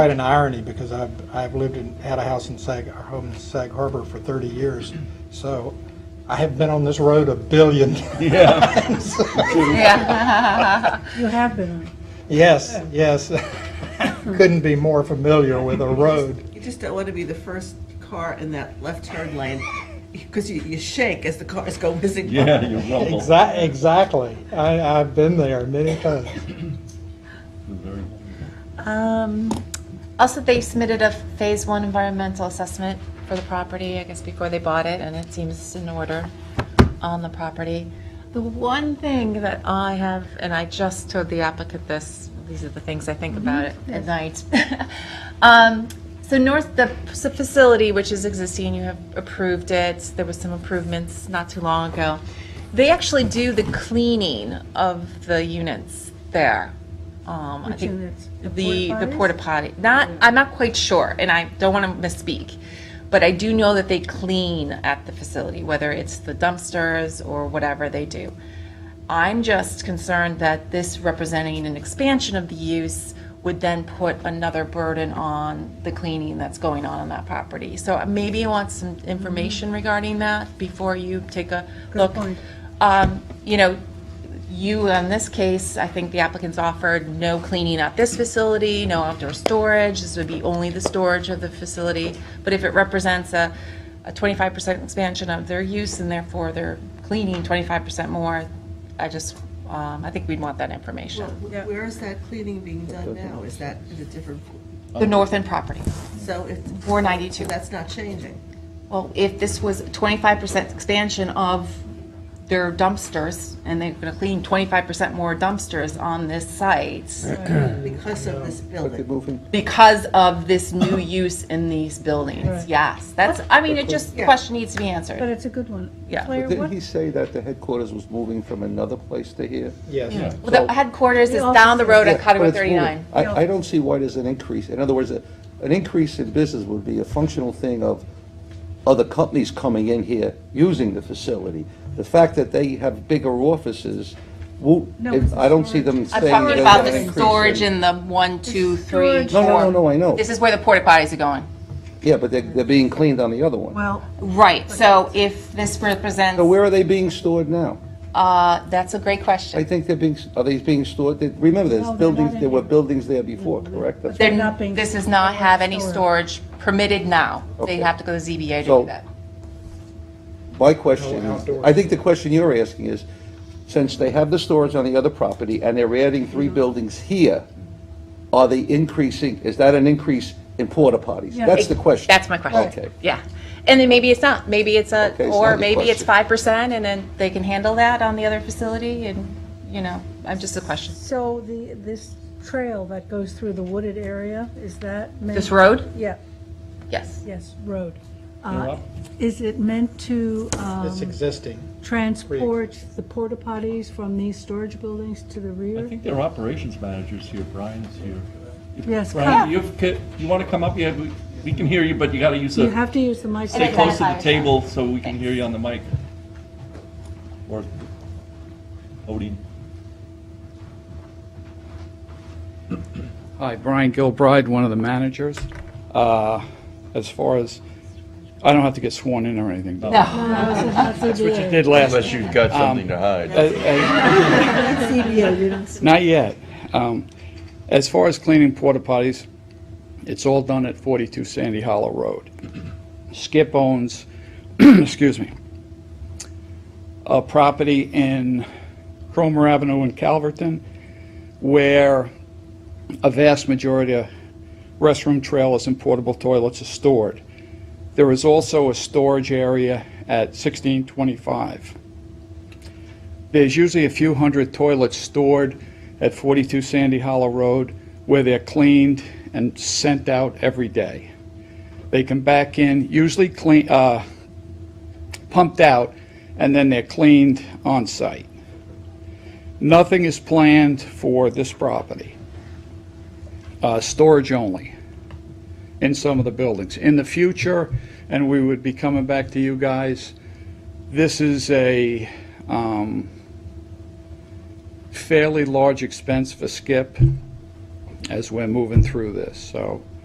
quite an irony because I've, I've lived in, had a house in Sag, our home in Sag Harbor for 30 years. So I have been on this road a billion times. Yeah. You have been on it. Yes, yes. Couldn't be more familiar with a road. You just don't want to be the first car in that left turn lane because you, you shake as the cars go whizzing. by. Yeah, you rumble. Exac- Exactly. I, I've been there many times. Very- Um, Also, they submitted a Phase One environmental assessment for the property, I guess before they bought it, and it seems in order on the property. The one thing that I have, and I just told the applicant this, these are the things I think about it at night. Um, So north, the s- facility which is existing, you have approved it, there was some improvements not too long ago. They actually do the cleaning of the units there. Um, I Which think units? The The, the porta-potties? porta potty. Not, I'm not quite sure, and I don't want to misspeak, but I do know that they clean at the facility, whether it's the dumpsters or whatever they do. I'm just concerned that this representing an expansion of the use would then put another burden on the cleaning that's going on on that property. So maybe you want some information regarding that before you take a look. Mm-hmm. point. Um, You know, you, in this case, I think the applicant's offered no cleaning at this facility, no outdoor storage. This would be only the storage of the facility. But if it represents a a 25% expansion of their use and therefore they're cleaning 25% more, I just, um, I think we'd want that Well, information. wh- Where is that cleaning being done now? Is that in a different, The north end property, so it's, 492. that's not changing. Well, if this was 25% expansion of their dumpsters, and they're going to clean 25% more dumpsters on this site Because of this building. because of this new use in these buildings, Right. yes. That's, I mean, it just, the Yeah. question needs to be But answered. it's a good one. Yeah. Claire, Didn't what, he say that the headquarters was moving from another place to here? Yes. Well, The headquarters is The down the road at Yeah, but Cottonwood it's moving. 39. I, I don't see why there's an increase. In other words, a- an increase in business would be a functional thing of other companies coming in here using the facility. The fact that they have bigger offices, won't- No, it's I don't see storage. them I'm saying. talking there's about an the increase storage in the one, two, three, storage. No, four. no, no, no, I know. This is where the porta potties are going. Yeah, but they're, they're being cleaned on the other one. well, Right, so if this represents, So where are they being stored now? uh, that's a great I question. think they're being, are they being stored, they- remember, No, there's they're not buildings, in there were here. buildings there before, correct? That's- They're They're- not being- This does not have any stored. storage permitted now. They Okay. have to go to ZBA to do So- that. My question, No outdoor. I think the question you're asking is, since they have the storage on the other property and they're adding three buildings here, are they increasing, is that an increase in porta potties? Yeah. That's the question. That's my question. Okay. Yeah. And then maybe it's not, maybe it's a, Okay, it's not or your maybe it's question. 5% and then they can handle that on the other facility and, you know, I'm just a question. so the, this trail that goes through the wooded area, is that meant? This road? Yeah, Yes. yes, road. Uh, Is it meant to um, It's existing. transport the porta potties from these storage buildings to the I rear? think their operations manager's here, Brian's here. If- Yes, Brian, come. you've, ca- you want to come up? Yeah, we- we can hear you, but you got to use You a, have to use the microphone. stay close to the Identify table so we can hear you on the mic. Or Odie. Hi, Brian Gilbride, one of the managers. Uh, As far as, I don't have to get sworn in or anything. Um, do No. I? That's what you did last. Unless you've got something to hide. uh, uh, Not yet. Um, As far as cleaning porta potties, it's all done at 42 Sandy Hollow Road. Skip owns, excuse me, a property in Cromer Avenue in Calverton where a vast majority of restroom trailers and portable toilets are stored. There is also a storage area at 1625. There's usually a few hundred toilets stored at 42 Sandy Hollow Road where they're cleaned and sent out every day. They come back in, usually clean, uh, pumped out, and then they're cleaned on site. Nothing is planned for this property. Uh, storage only in some of the buildings. In the future, and we would be coming back to you guys, this is a, um, fairly large expense for Skip, as we're moving through this, so.